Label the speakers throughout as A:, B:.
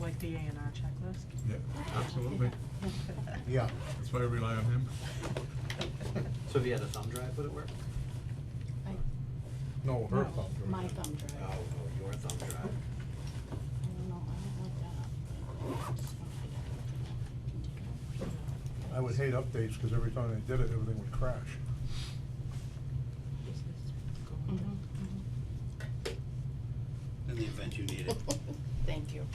A: like the A and R checklist?
B: Yeah, absolutely.
C: Yeah.
B: That's why I rely on him.
D: So if you had a thumb drive, would it work?
E: I,
C: No, her
E: no,
C: thumb drive.
E: my thumb
D: Oh,
E: drive.
D: oh, your thumb drive.
E: I don't know, I haven't looked that up, but I just wanna figure out what the- I can take it out, put it out.
C: I would hate updates, cause every time they did it, everything would crash.
E: Mhm, mhm.
F: Mm-hmm, in the event you need it.
E: Thank you.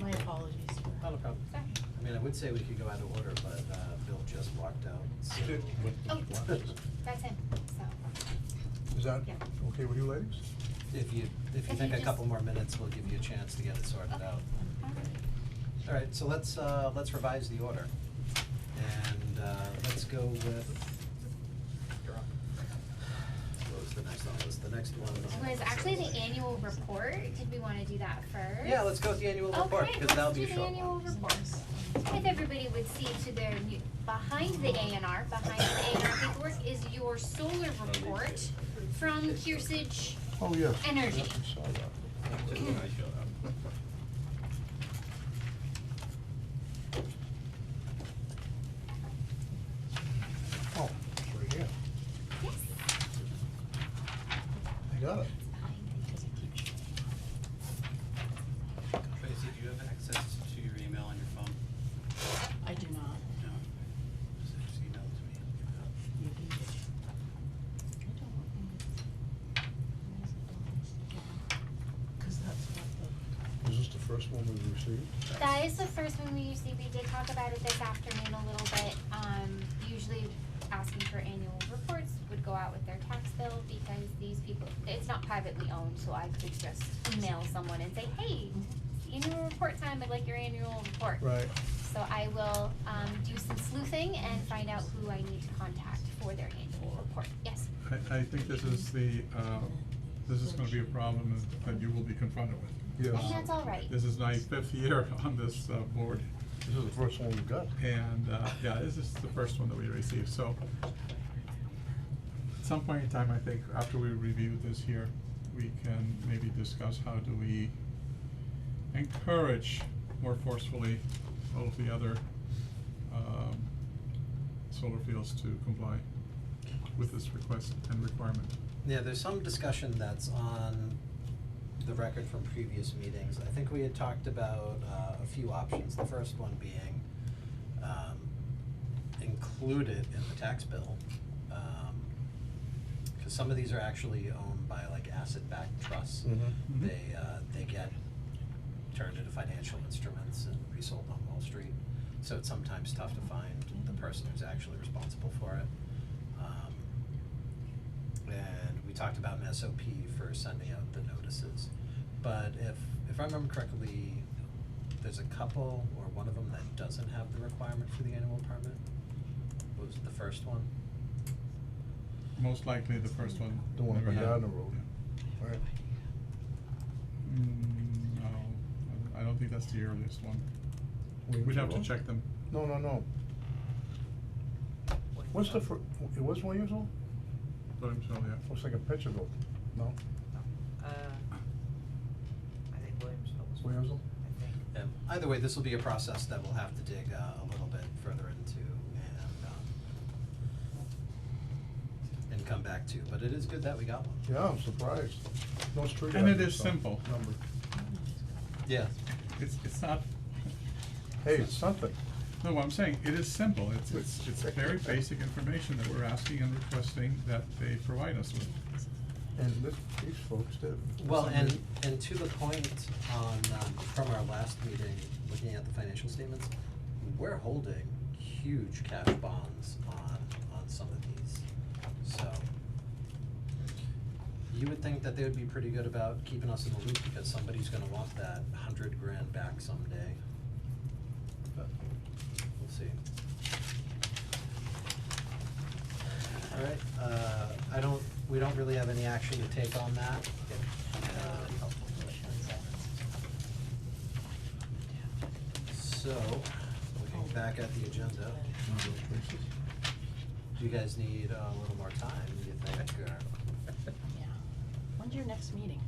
E: My apologies for.
D: Not a Oh, problem. I mean, I would say we could go out of order, but, uh, Bill just walked out, so.
G: Oh.
D: If
G: That's him, so.
C: Is that
G: Yeah.
C: okay with you ladies?
D: you, if
G: If
D: you
G: you
D: think a
G: just-
D: couple more minutes, we'll give you a chance to get it sorted
G: Okay.
D: out.
G: Alright.
D: All right, so let's, uh, let's revise the order. And, uh, let's go with. You're up. What was the next one? Was the next one?
G: It was actually the annual report, did we wanna do that first?
D: Yeah, let's go with the annual report,
G: Okay,
D: because that'll
G: let's
D: be
G: do
D: a
G: the
D: short one.
G: annual report. If everybody would see to their new, behind the A and R, behind the A and R paperwork is your solar report from Kearsage
C: Oh, yes.
G: Energy.
C: Yep, I saw that. Oh, it's right here.
G: Yes.
C: I got it.
F: Tracy, do you have access to your email on your phone?
E: I do not.
F: No. Just- Just email it to me. I'll give it up.
E: You can get it. I don't think it's. where is it? Oh, it's- yeah. Cause that's what the,
C: Is this the first one we received?
G: That is the first one we usually, we did talk about it this afternoon a little bit, um, usually asking for annual reports would go out with their tax bill because these people, it's not privately owned, so I could just email someone and say, hey, annual report time, I'd like your annual report.
C: Right.
G: So I will, um, do some sleuthing and find out who I need to contact for their annual report, yes.
B: I, I think this is the, uh, this is gonna be a problem that- that you will be confronted with. Um,
C: Yes.
G: And that's all right.
B: This is my fifth year on this, uh, board,
C: This is the first one we got.
B: and, uh, yeah, this is the first one that we received, so. At some point in time, I think, after we review this here, we can maybe discuss how do we encourage more forcefully all of the other, um, solar fields to comply with this request and requirement.
D: Yeah, there's some discussion that's on the record from previous meetings. I think we had talked about uh, a few options, the first one being um, include it in the tax bill. Because some of these are actually owned by like asset-backed trusts.
C: Mhm.
B: Mhm.
D: They, uh, they get turned into financial instruments and resold on Wall Street. So it's sometimes tough to find the person who's actually responsible for it. Um, and we talked about an SOP for sending out the notices. But if, if I remember correctly, there's a couple or one of them that doesn't have the requirement for the annual permit. What was the first one?
B: Most likely the first one.
C: The one
B: never
C: on
B: had-
C: Gardner Road. Right.
B: Mm, no, I don't- I don't think that's the earliest one.
C: We-
B: We'd have to check them.
C: No, no, no. What's the fir-, it was one years old?
B: Williamsville, yeah.
C: Looks like a picture though. No?
H: Uh, I think Williamsville was. one,
C: Williamsville?
H: I think.
D: And either way, this will be a process that we'll have to dig uh, a little bit further into and, um, and come back to, but it is good that we got one.
C: Yeah, I'm surprised. No street.
B: And it
C: address
B: is
C: on
B: simple.
C: Number.
D: Yeah.
B: It's, it's not,
C: Hey, it's something.
B: no, what I'm saying, it is simple. It's, it's, it's very basic information that we're asking and requesting that they provide us with.
C: And this, these folks did.
D: Well, and, and to the point on, um, from our last meeting, looking at the financial statements, we're holding huge cash bonds on, on some of these, so. You would think that they would be pretty good about keeping us in the loop, because somebody's gonna want that hundred grand back someday. But, we'll see. Alright, uh, I don't, we don't really have any action to take on that. Um, So, looking back at the agenda, do you guys need uh, a little more time, do you think, or?
E: yeah. When's your next meeting?